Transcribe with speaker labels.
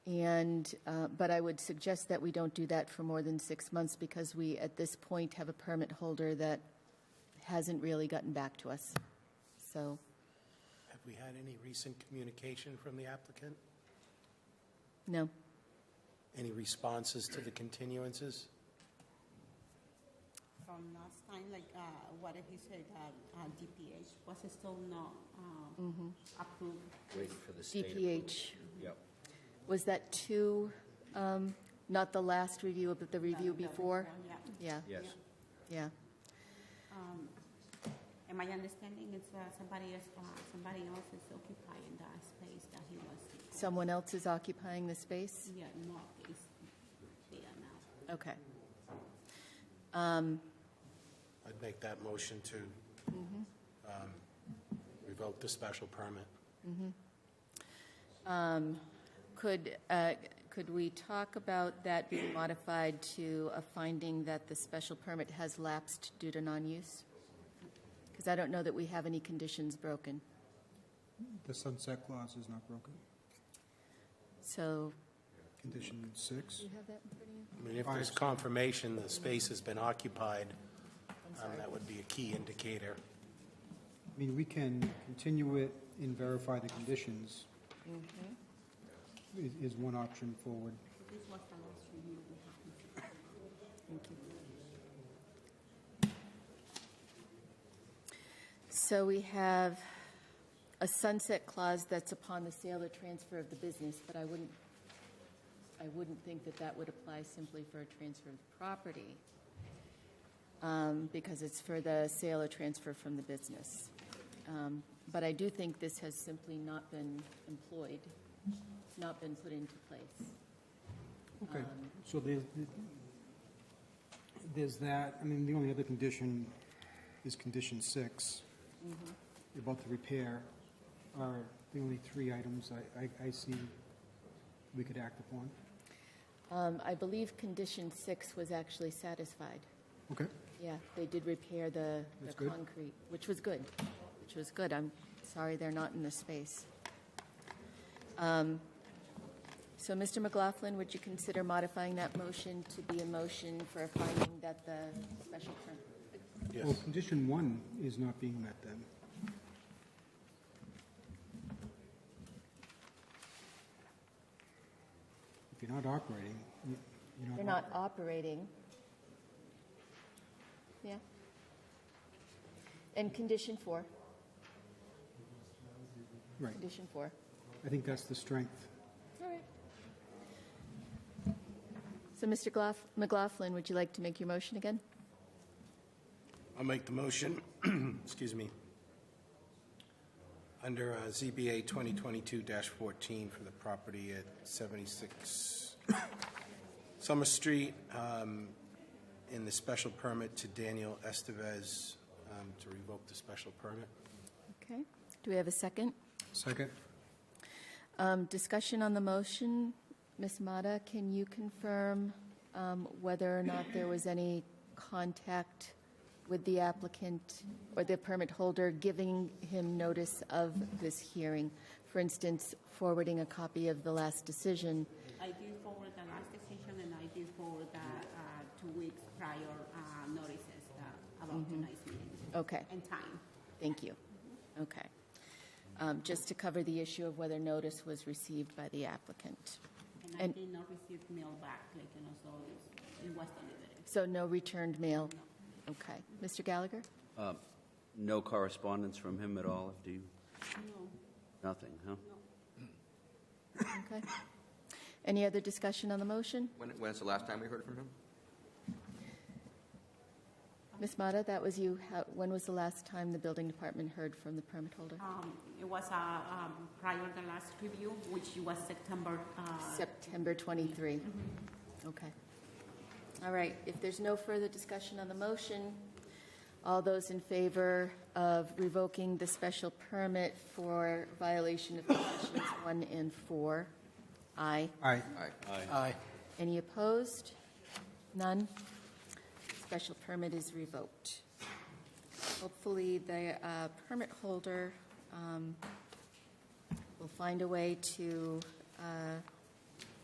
Speaker 1: And, uh, but I would suggest that we don't do that for more than six months because we, at this point, have a permit holder that hasn't really gotten back to us. So
Speaker 2: Have we had any recent communication from the applicant?
Speaker 1: No,
Speaker 2: Any responses to the continuances?
Speaker 3: From last time, like, uh, what he said, that uh, DPH was still not uh,
Speaker 1: Mm-hmm.
Speaker 3: approved.
Speaker 4: Waiting for the state approval.
Speaker 1: DPH,
Speaker 4: Yep.
Speaker 1: was that two, um, not the last review, but the review
Speaker 3: That- that
Speaker 1: before?
Speaker 3: one, Yeah.
Speaker 1: Yeah,
Speaker 4: Yes.
Speaker 1: yeah.
Speaker 3: Um, And my understanding is uh, somebody else, uh, somebody else is occupying that space that he was.
Speaker 1: Someone else is occupying the space?
Speaker 3: Yeah, not is there now.
Speaker 1: Okay.
Speaker 2: I'd make that motion to um, revoke the special permit.
Speaker 1: Could, uh, could we talk about that being modified to a finding that the special permit has lapsed due to non-use? Because I don't know that we have any conditions broken.
Speaker 5: The sunset clause is not broken.
Speaker 1: So.
Speaker 5: Condition six,
Speaker 1: Do you have that in front of you?
Speaker 2: I mean, if there's confirmation the space has been occupied, um, that would be a key indicator.
Speaker 5: I mean, we can continue it and verify the conditions. Is, is one option forward.
Speaker 3: This was the last review we had.
Speaker 1: So we have a sunset clause that's upon the sale or transfer of the business, but I wouldn't, I wouldn't think that that would apply simply for a transfer of the property, um, because it's for the sale or transfer from the business. Um, But I do think this has simply not been employed, not been put into place.
Speaker 5: Okay, so there's, there's that, I mean, the only other condition is condition six, about the repair, are the only three items I, I, I see we could act upon.
Speaker 1: Um, I believe condition six was actually satisfied.
Speaker 5: Okay.
Speaker 1: Yeah, they did repair the, the
Speaker 5: That's good.
Speaker 1: concrete, which was good, which was good. I'm sorry they're not in the space. Um, So, Mr. McLaughlin, would you consider modifying that motion to be a motion for a finding that the special permit?
Speaker 5: Well, condition one is not being met then. If you're not operating, you- you're not.
Speaker 1: They're not operating. Yeah. And condition four,
Speaker 5: Right,
Speaker 1: condition four.
Speaker 5: I think that's the strength.
Speaker 1: All right. So, Mr. Glaf- McLaughlin, would you like to make your motion again?
Speaker 2: I'll make the motion, excuse me, under uh, ZBA 2022-14 for the property at 76 Summer Street, um, in the special permit to Daniel Estevez um, to revoke the special permit.
Speaker 1: Okay. Do we have a second?
Speaker 5: Second.
Speaker 1: Um, Discussion on the motion. Ms. Mata, can you confirm um, whether or not there was any contact with the applicant or the permit holder giving him notice of this hearing? For instance, forwarding a copy of the last decision.
Speaker 3: I did forward the last decision and I did forward the uh, two weeks prior uh, notices that about
Speaker 1: Mm-hmm.
Speaker 3: tonight's meeting
Speaker 1: Okay,
Speaker 3: and time.
Speaker 1: thank you. Okay. Um, Just to cover the issue of whether notice was received by the applicant.
Speaker 3: And I
Speaker 1: And-
Speaker 3: did not receive mail back, like, you know, so it's- it was delivered.
Speaker 1: So no returned mail? Okay. Mr. Gallagher?
Speaker 4: Um, No correspondence from him at all, do you?
Speaker 3: No,
Speaker 4: Nothing, huh?
Speaker 1: Okay. Any other discussion on the motion?
Speaker 6: When, when's the last time we heard from him?
Speaker 1: Ms. Mata, that was you. How- When was the last time the building department heard from the permit holder?
Speaker 3: Um, It was uh, um, prior to the last review, which was September. uh,
Speaker 1: September 23. Okay. All right, if there's no further discussion on the motion, all those in favor of revoking the special permit for violation of conditions one and four? Aye.
Speaker 5: Aye.
Speaker 2: Aye.
Speaker 1: Any opposed? None? Special permit is revoked. Hopefully, the uh, permit holder um, will find a way to uh,